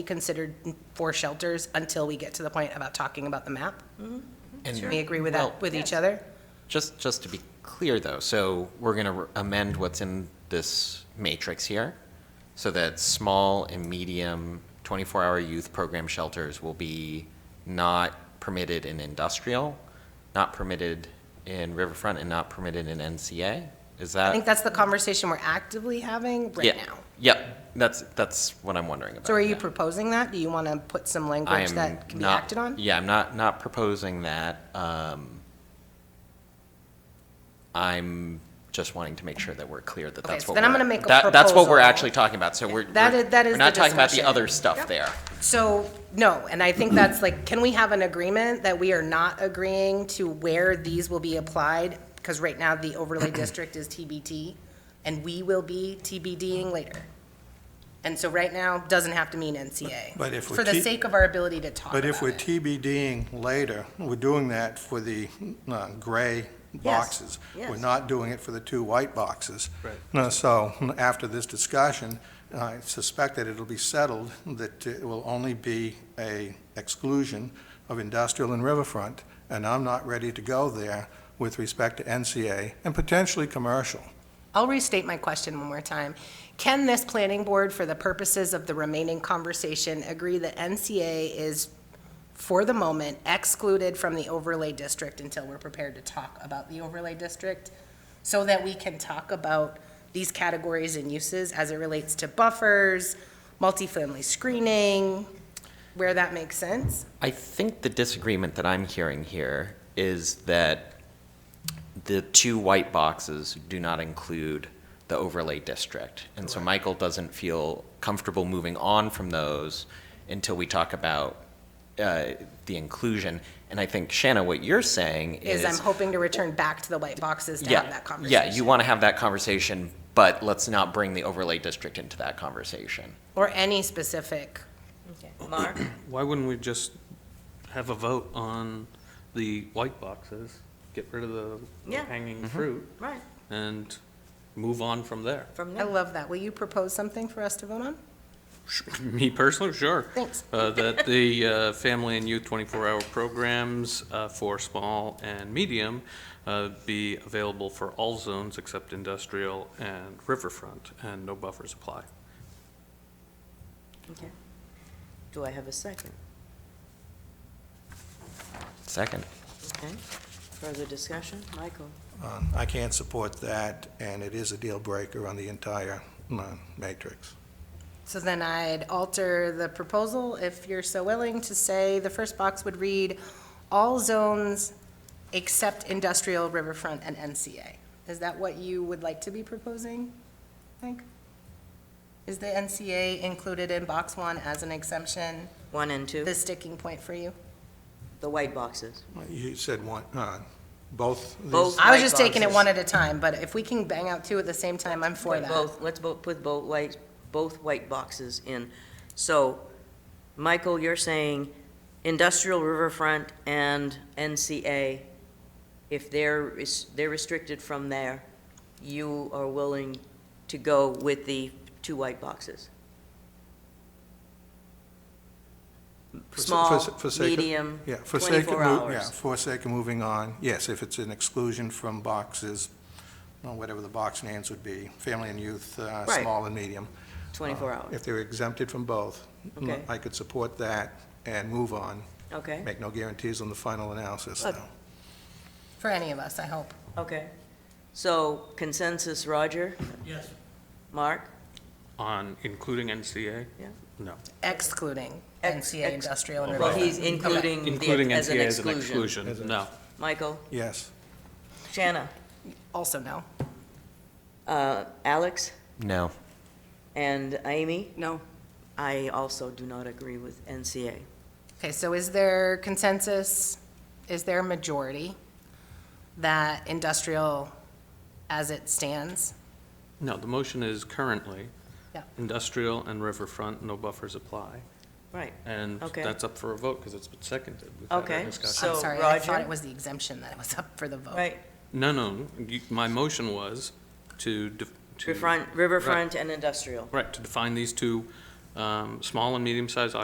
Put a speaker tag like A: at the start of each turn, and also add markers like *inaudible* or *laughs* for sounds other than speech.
A: be considered for shelters until we get to the point about talking about the map.
B: Mm-hmm. And-
A: We agree with
B: Well,
A: that, with each other?
B: Just, just to be clear, though, so we're going to amend what's in this matrix here, so that small and medium 24-hour youth program shelters will be not permitted in industrial, not permitted in riverfront, and not permitted in NCA? Is that?
A: I think that's the conversation we're actively having right
B: Uh, Yeah.
A: now.
B: Yep, that's, that's what I'm wondering about.
A: So are you
B: yeah.
A: proposing that? Do you want to put some
B: I
A: language
B: am
A: that can be
B: not-
A: acted on?
B: Yeah, I'm not, not proposing that. um, I'm just wanting to make sure that we're clear that
A: Okay,
B: that's
A: so
B: what we're.
A: then I'm gonna make a
B: that- That's what we're
A: proposal.
B: actually talking about, so we're.
A: That
B: we're-
A: is- that is
B: We're not
A: the
B: talking about the
A: discussion.
B: other stuff there.
A: So, no, and I think that's like, can we have an agreement that we are not agreeing to where these will be applied? Because right now, the
C: *clears throat*
A: overlay district is TBT, and we will be TBDing later. And so right now, doesn't have to mean NCA.
C: But if we're
A: For the
C: T-
A: sake of our ability to talk
C: But
A: about
C: if we're
A: it.
C: TBDing later, we're doing that for the uh, gray boxes. We're
D: yes.
C: not doing it for the two white boxes. Right. So after this discussion, I suspect that it'll be settled that it will only be a exclusion of industrial and riverfront, and I'm not ready to go there with respect to NCA and potentially commercial.
A: I'll restate my question one more time. Can this planning board, for the purposes of the remaining conversation, agree that NCA is, for the moment, excluded from the overlay district until we're prepared to talk about the overlay district? So that we can talk about these categories and uses as it relates to buffers, multifamily screening, where that makes sense?
B: I think the disagreement that I'm hearing here is that the two white boxes do not include the overlay district. And so Michael doesn't feel comfortable moving on from those until we talk about uh, the inclusion. And I think, Shanna, what you're saying is.
A: Is I'm hoping to return back to the white boxes to
B: Yeah,
A: have that conversation.
B: Yeah, you want to have that conversation, but let's not bring the overlay district into that conversation.
A: Or any specific
D: Mark?
E: Why wouldn't we just have a vote on the white boxes, get rid of the
D: Yeah.
E: hanging fruit,
D: Right,
E: and move on from there? *laughs*
D: from
A: I
D: there.
A: love that. Will you propose something for us to vote on?
E: Me personally, sure.
A: Thanks.
E: Uh, That the uh, family and youth 24-hour programs uh, for small and medium uh, be available for all zones except industrial and riverfront, and no buffers apply.
D: Okay. Do I have a second?
B: Second.
D: Okay. Further discussion? Michael?
C: Uh, I can't support that, and it is a deal breaker on the entire uh, matrix.
A: So then I'd alter the proposal, if you're so willing, to say the first box would read, "All zones except industrial, riverfront, and NCA." Is that what you would like to be proposing, I think? Is the NCA included in box one as an exemption,
D: One and two?
A: the sticking point for you?
D: The white boxes.
C: You said one, uh, both these?
D: Both.
A: I was
D: White
A: just taking it
D: boxes.
A: one at a time, but if we can bang out two at the same time, I'm for
D: Put
A: that.
D: Both, let's both, put both white, both white boxes in. So, Michael, you're saying industrial riverfront and NCA, if they're, res- they're restricted from there, you are willing to go with the two white boxes?
C: For s- for
D: Small,
C: s- for sake of-
D: medium,
C: Yeah, for sake of,
D: twenty-four
C: mo- yeah,
D: hours.
C: for sake of moving on, yes, if it's an exclusion from boxes, well, whatever the box names would be, family and youth, uh,
D: Right.
C: small and medium. Uh,
D: Twenty-four hours,
C: If they're exempted from both, mm,
D: Okay.
C: I could support that and move on,
D: okay,
C: make no guarantees on the final analysis,
D: Look.
C: though.
A: For any of us, I hope.
D: okay. So consensus, Roger? Yes. Mark?
E: On including NCA?
D: Yeah.
E: No.
A: Excluding
D: Ex-
A: NCA
D: ex-
A: industrial and
D: Well,
A: riverfront.
D: he's including
E: Including
D: the, as an
E: NCA as an
D: exclusion.
E: exclusion, no.
D: Michael,
C: Yes.
D: Shanna,
A: Also no.
D: uh, Alex,
B: No.
D: and Amy,
A: No.
D: I also do not agree with NCA.
A: Okay, so is there consensus, is there a majority that industrial as it stands?
E: No, the motion is currently
A: Yeah.
E: industrial and riverfront, no buffers apply.
D: Right,
E: And
D: Okay.
E: that's up for a vote because it's been seconded. We've had our
D: Okay,
E: discussion.
A: I'm
D: So,
A: sorry, I thought
D: Roger?
A: it was the exemption that was up for the vote.
D: right,
E: No, no, you- my motion was to. def- to-
D: riverfront, riverfront and industrial.
E: Right, to define these two Um, Small and medium-sized